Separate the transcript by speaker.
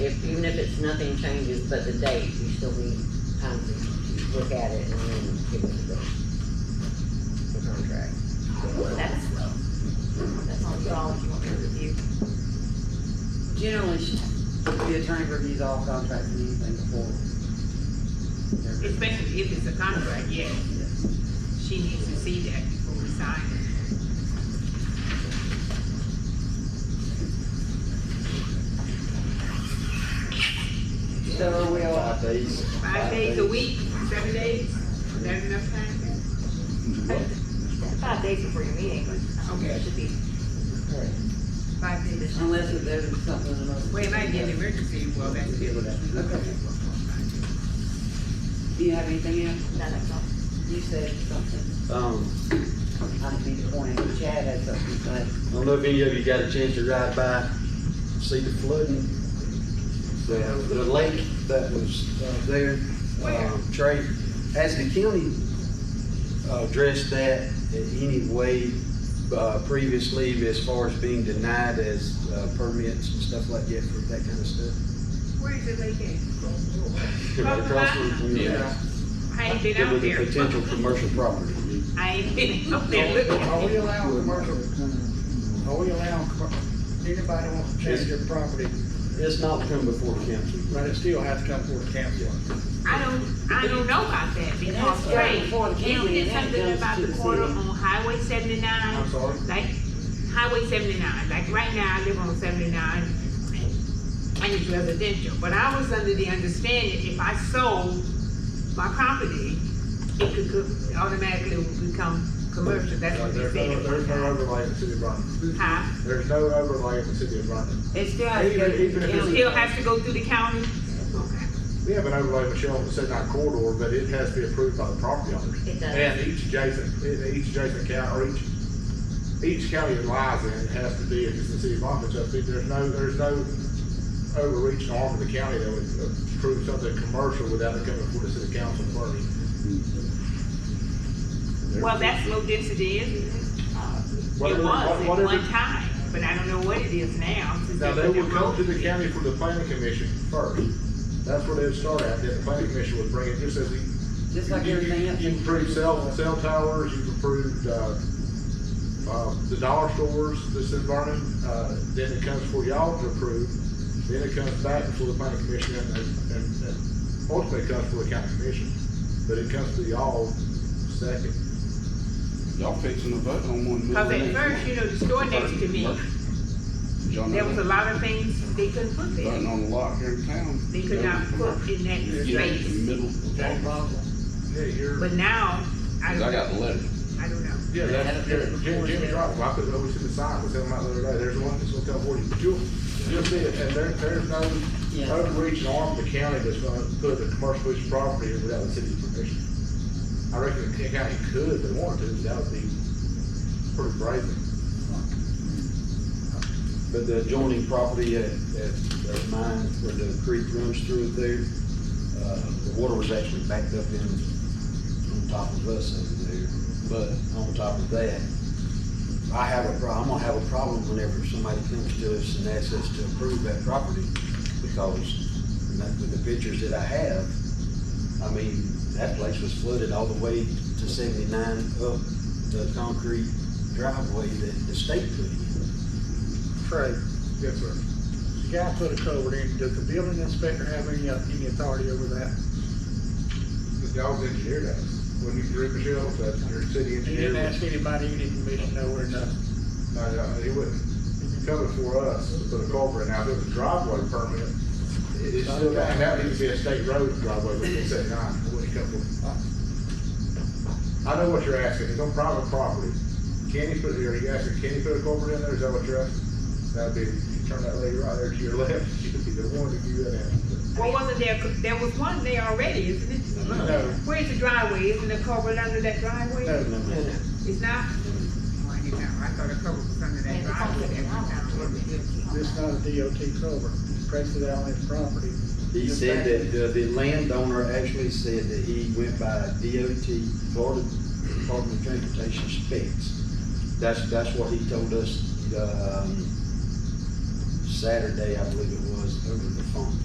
Speaker 1: if it's nothing changes but the date, you still need time to look at it and then give us the, the contract.
Speaker 2: That's, that's all y'all want to review.
Speaker 3: Generally, she- the attorney reviews all contracts and anything before. they're-
Speaker 4: Especially if it's a contract, yes,
Speaker 3: yes.
Speaker 4: she needs to see that before we sign it.
Speaker 3: So we'll,
Speaker 5: Five days.
Speaker 4: Five days a week, seven days, is that enough time?
Speaker 2: Five days before your meeting, but I don't think it should be
Speaker 4: Five days.
Speaker 3: unless if there's something in the most.
Speaker 4: Well, if I get an emergency, well, that's different.
Speaker 3: Okay. Do you have anything else?
Speaker 2: none of them.
Speaker 3: You said something.
Speaker 5: Um,
Speaker 3: I need to point out, Chad had something to say.
Speaker 5: I don't know if any of you got a chance to ride by, see the flooding, the, the lake that was uh, there.
Speaker 4: Where?
Speaker 5: Um, Trey, has the county uh, addressed that in any way uh, previously as far as being denied as uh, permits and stuff like that for that kind of stuff?
Speaker 4: Where is it located?
Speaker 5: Across from the community.
Speaker 6: Yeah.
Speaker 4: I ain't been
Speaker 5: It
Speaker 4: out
Speaker 5: was a
Speaker 4: there.
Speaker 5: potential commercial property.
Speaker 4: I ain't been out there
Speaker 6: Are we
Speaker 4: looking.
Speaker 6: allowing commercial, are we allowing, commer- anybody wants to change their property,
Speaker 5: It's not come before council.
Speaker 6: but it still has to come before the council.
Speaker 4: I don't, I don't know about that because,
Speaker 3: right
Speaker 4: Ray,
Speaker 3: before the
Speaker 4: you
Speaker 3: county,
Speaker 4: did
Speaker 3: and that
Speaker 4: something
Speaker 3: goes
Speaker 4: about
Speaker 3: to
Speaker 4: the
Speaker 3: the
Speaker 4: quarter
Speaker 3: city.
Speaker 4: on Highway seventy-nine.
Speaker 6: I'm sorry.
Speaker 4: like Highway seventy-nine, like right now, I live on seventy-nine, and it's residential, but I was under the understanding if I sold my property, it could co- automatically would become commercial, that's what they
Speaker 6: There's no, there's no
Speaker 4: said.
Speaker 6: overlay in the city of Brandon.
Speaker 4: Huh?
Speaker 6: There's no overlay in the city of Brandon.
Speaker 3: It still has to go to
Speaker 6: Even- even
Speaker 3: the
Speaker 6: if
Speaker 4: It
Speaker 3: county.
Speaker 4: still has to go through the county? Okay.
Speaker 6: We have an overlay, Michelle, on the seventy-nine corridor, but it has to be approved by the property owners.
Speaker 2: It does.
Speaker 6: And each adjacent, and each adjacent county, or each, each county it lies in has to be, if it's the city of Brandon, so see, there's no, there's no overreaching arm of the county that would approve something commercial without it coming before the city council first.
Speaker 4: Well, that's low density, isn't it?
Speaker 6: What-
Speaker 4: It
Speaker 6: what-
Speaker 4: was at
Speaker 6: whatever-
Speaker 4: one time, but I don't know what it is now. since
Speaker 6: Now,
Speaker 4: they
Speaker 6: they
Speaker 4: put
Speaker 6: would
Speaker 4: that
Speaker 6: come to
Speaker 4: road
Speaker 6: the
Speaker 4: in.
Speaker 6: county for the planning commission first. That's where they would start at, then the planning commission would bring it, just as you.
Speaker 3: Just like
Speaker 6: you- you-
Speaker 3: everything else.
Speaker 6: You've approved cell, cell towers, you've approved, uh, uh, the dollar stores, this in Vernon, uh, then it comes for y'all to approve, then it comes back before the planning commission and, and, and- and ultimately it comes for the county commission, but it comes to y'all second.
Speaker 7: Y'all fixing to vote on one. middle
Speaker 4: Cause at
Speaker 7: of the
Speaker 4: first, you know, the store next to me,
Speaker 7: Y'all know
Speaker 4: there was a
Speaker 7: that.
Speaker 4: lot of things they couldn't put there.
Speaker 7: Voting on the lot here in town.
Speaker 4: They could not put in that
Speaker 7: You know, the
Speaker 4: space,
Speaker 7: middle. of the lot.
Speaker 6: Yeah, you're.
Speaker 4: but now, I
Speaker 7: Cause I
Speaker 4: don't know,
Speaker 7: got the letter.
Speaker 4: I don't know.
Speaker 6: Yeah, that's, yeah, Jim- Jimmy's right, well, I put it over to the side, was telling my other day, there's one that's gonna come for you, but you'll, you'll see it, and there, there's no
Speaker 3: Yeah.
Speaker 6: overreaching arm of the county that's gonna put a commercial piece of property in without the city's permission. I reckon the King county could, if they wanted to, but that would be pretty brazen.
Speaker 5: But the adjoining property at, at, at mine, where the creek runs through it there, uh, the water was actually backed up in, on top of us over there. But on top of that, I have a prob, I'm gonna have a problem whenever somebody comes to us and asks us to approve that property, because and that- with the pictures that I have, I mean, that place was flooded all the way to seventy-nine up the concrete driveway that the state put in.
Speaker 6: Trey. Yes, sir.
Speaker 8: The guy put a culvert in, does the building inspector have any, uh, any authority over that?
Speaker 6: The dog's engineer does, when you drew Michelle, that's your city
Speaker 8: He
Speaker 6: engineer.
Speaker 8: didn't ask anybody, any permission, nowhere, nothing.
Speaker 6: No, no, he wouldn't, if you come before us, to put a culvert in, now, if it was a driveway permit, it's still, that, that needs to be a state road driveway, but it's at nine, it wouldn't come from- I know what you're asking, it's on private property, can you put, are you asking, can you put a culvert in there, is that what you're asking? That'd be, you turn that lady right there to your left, she'd be the one to do that.
Speaker 4: Well, wasn't there, there was one there already, isn't it?
Speaker 6: No.
Speaker 4: Where's the driveway, isn't the culvert under that driveway?
Speaker 8: No.
Speaker 4: It's not? Oh, I didn't know, I thought the culvert was under that
Speaker 2: And it's on
Speaker 4: driveway
Speaker 2: the
Speaker 4: every time.
Speaker 8: This not a DOT culvert, it's prested out on his property.
Speaker 5: He
Speaker 8: Just
Speaker 5: said
Speaker 8: back-
Speaker 5: that uh, the landowner actually said that he went by DOT, Florida Department of Transportation specs. That's, that's what he told us, um, Saturday, I believe it was, over the phone.